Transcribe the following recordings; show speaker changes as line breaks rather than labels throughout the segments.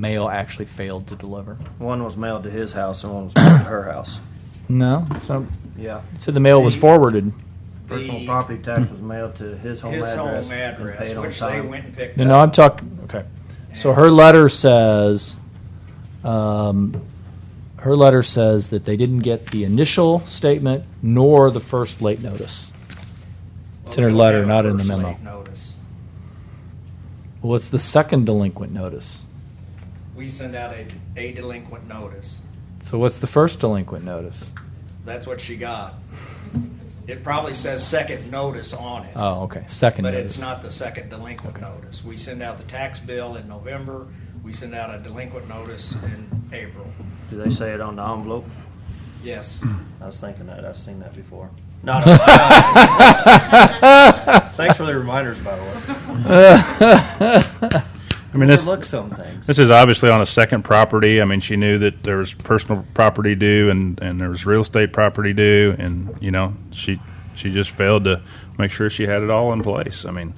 mail actually failed to deliver.
One was mailed to his house and one was mailed to her house.
No, it's not.
Yeah.
It said the mail was
The-
forwardarded.
Personal
The-
property tax was mailed to his home
His
address.
home
and
address,
paid on
which they
time.
went and picked
No, no, I'm
up.
talking. Okay, so her letter says, um, her letter says that they didn't get the initial statement nor the first late notice. It's in her
Well, we
letter,
have a
not in the
first
memo.
late notice.
Well, it's the second delinquent notice.
We send out a, a delinquent notice.
So what's the first delinquent notice?
That's what she got. It probably says second notice on it.
Oh, okay, second
But
notice.
it's not the second delinquent
Okay.
notice. We send out the tax bill in November, we send out a delinquent notice in April.
Do they say it on the envelope?
Yes.
I was thinking that. I've seen that before. No, no, no. Thanks for the reminders, by the way.
I mean, this,
Overlook some things.
this is obviously on a second property. I mean, she knew that there was personal property due and, and there was real estate property due, and you know, she she just failed to make sure she had it all in place. I mean,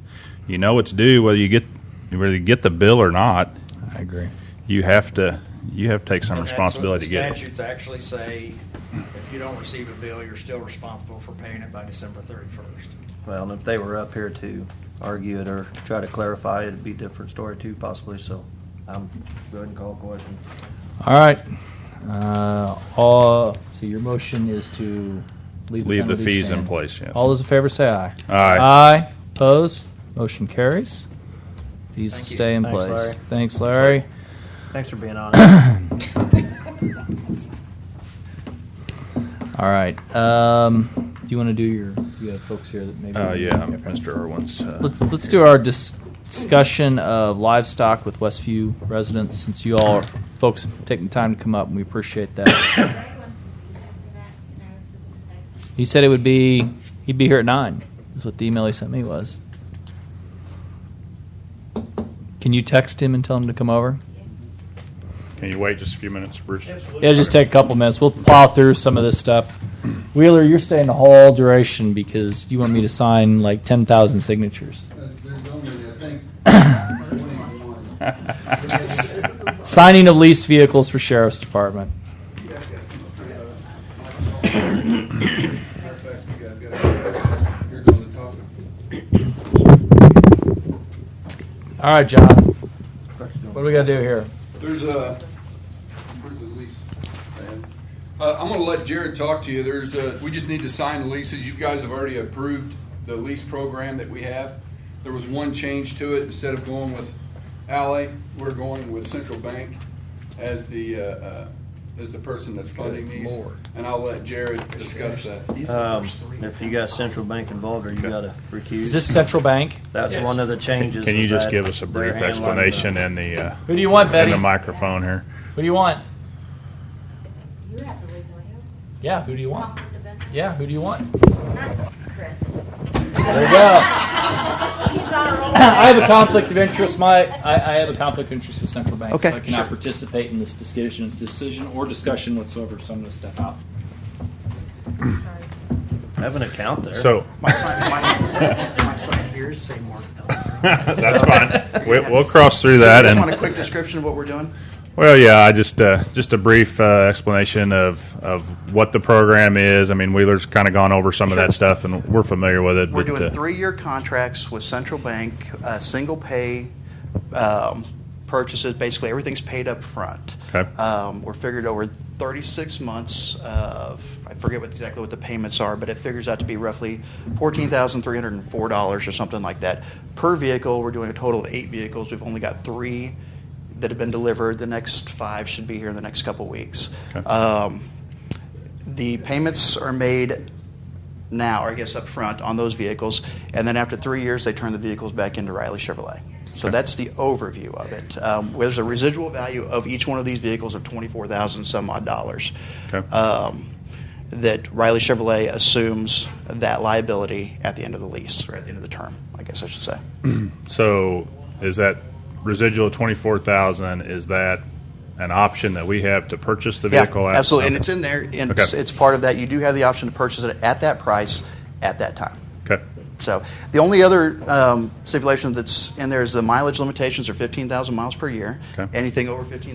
you know, it's due whether you get whether you get the bill or not.
I agree.
You have to you have to take some
And that's what
responsibility to
the
get it.
Statutes actually say, if you don't receive a bill, you're still responsible for paying it by December thirty-first.
Well, and if they were up here to argue it or try to clarify, it'd be a different story too, possibly. So I'm going to call question.
All right. Uh, all, so your motion is to leave the
Leave the
penalties
fees in
stand.
place, yes.
All those in favor say aye.
Aye.
Aye. Opposed? Motion carries. Fees will
Thank you.
stay in
Thanks,
place.
Larry.
Thanks, Larry.
Thanks for being honest.
All right. Um, do you want to do your? You have folks here that maybe.
Uh, yeah,
Okay.
Mr. Irwin's. Uh,
Let's let's do our dis- discussion of livestock with Westview residents. Since you all are, folks have taken time to come up, and we appreciate that.
Greg wants to be here for that, and I was supposed to text him.
He said it would be he'd be here at nine. Is what the email he sent me was. Can you text him and tell him to come over?
Can you wait just a few minutes, Bruce?
It'll just take a couple minutes. We'll plow through some of this stuff. Wheeler, you're staying the whole duration because you want me to sign like ten thousand signatures. Signing of leased vehicles for sheriff's department. All right, John. What do we gotta do here?
There's a, where's the lease? man? Uh, I'm gonna let Jared talk to you. There's a, we just need to sign the leases. You guys have already approved the lease program that we have. There was one change to it. Instead of going with Ally, we're going with Central Bank as the, uh, uh, as the person that's funding these. And I'll let Jared discuss that.
Um, if you got central bank involved, or you got to recuse.
Is this Central Bank?
That's one of the changes.
Can you
is
just
that
give us a
they're
brief
handling the-
explanation in the uh,
Who do you want,
in
Betty?
the
Who
microphone here?
do you want?
You have to leave, don't you?
Yeah, who do you
Off
want?
of the bench.
Yeah, who do you want?
Not Chris.
There you go.
Oh, He's on a roll.
I have a conflict of interest. My, I, I have a conflict of interest with central bank.
Okay,
so I cannot
sure.
participate in this decision, decision or discussion whatsoever. So I'm going to step out.
Sorry.
Have an account there.
So
My son, my, my son hears say more.
that's fine. We, we'll cross through that
So
and
you just want a quick description of what we're doing?
Well, yeah, I just uh, just a brief uh, explanation of of what the program is. I mean, Wheeler's kind of gone over some of
Sure.
that stuff, and we're familiar with it.
We're
but,
doing
uh,
three-year contracts with Central Bank, uh, single pay um, purchases. Basically, everything's paid up front.
Okay.
Um, we're figured over 36 months of I forget what, exactly what the payments are, but it figures out to be roughly $14,304 or something like that per vehicle. We're doing a total of eight vehicles. We've only got three that have been delivered. The next five should be here in the next couple weeks.
Okay.
Um, the payments are made now, or I guess up front, on those vehicles, and then after three years, they turn the vehicles back into Riley Chevrolet. So
Okay.
that's the overview of it. Um, there's a residual value of each one of these vehicles of twenty-four thousand some odd dollars.
Okay.
Um, that Riley Chevrolet assumes that liability at the end of the lease, or at the end of the term, I guess I should say.
so is that residual twenty four thousand? Is that an option that we have to purchase the vehicle?
yeah,
at-
absolutely, and
Okay.
it's in there, and
Okay.
it's, it's part of that. You do have the option to purchase it at that price at that time.
Okay.
So the only other um, stipulation that's in there is the mileage limitations are 15,000 miles per year.
Okay.
Anything over 15,000